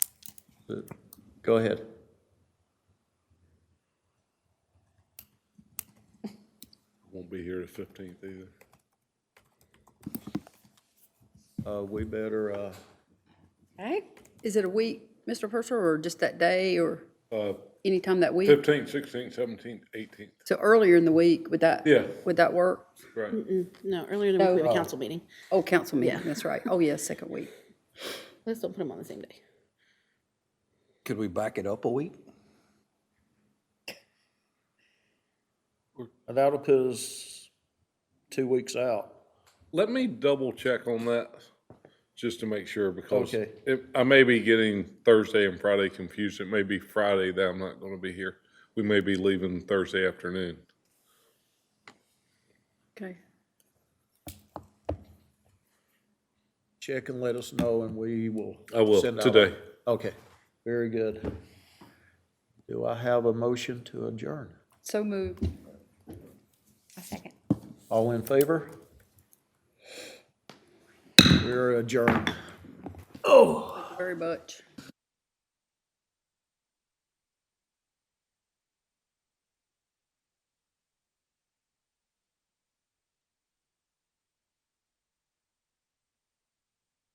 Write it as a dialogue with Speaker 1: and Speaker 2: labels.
Speaker 1: But Go ahead.
Speaker 2: Won't be here the fifteenth either.
Speaker 1: Uh, we better, uh,
Speaker 3: Okay. Is it a week, Mr. Purser, or just that day, or anytime that week?
Speaker 2: Fifteenth, sixteenth, seventeenth, eighteenth,
Speaker 3: So earlier in the week, would that?
Speaker 2: Yeah.
Speaker 3: Would that work?
Speaker 2: right.
Speaker 4: No, earlier in the week, we had a council meeting.
Speaker 3: Oh, council meeting, that's right. Oh, yeah, second week.
Speaker 4: Let's don't put them on the same day.
Speaker 5: Could we back it up a week?
Speaker 6: And that'll put us two weeks out.
Speaker 2: Let me double check on that just to make sure because
Speaker 6: Okay.
Speaker 2: it- I may be getting Thursday and Friday confused. It may be Friday that I'm not going to be here. We may be leaving Thursday afternoon.
Speaker 3: Okay.
Speaker 1: check and let us know and we will.
Speaker 2: I will,
Speaker 1: send out-
Speaker 2: today.
Speaker 1: Okay.
Speaker 6: Very good.
Speaker 1: Do I have a motion to adjourn?
Speaker 3: So moved.
Speaker 7: A second.
Speaker 1: All in favor? We're adjourned.
Speaker 3: Very much.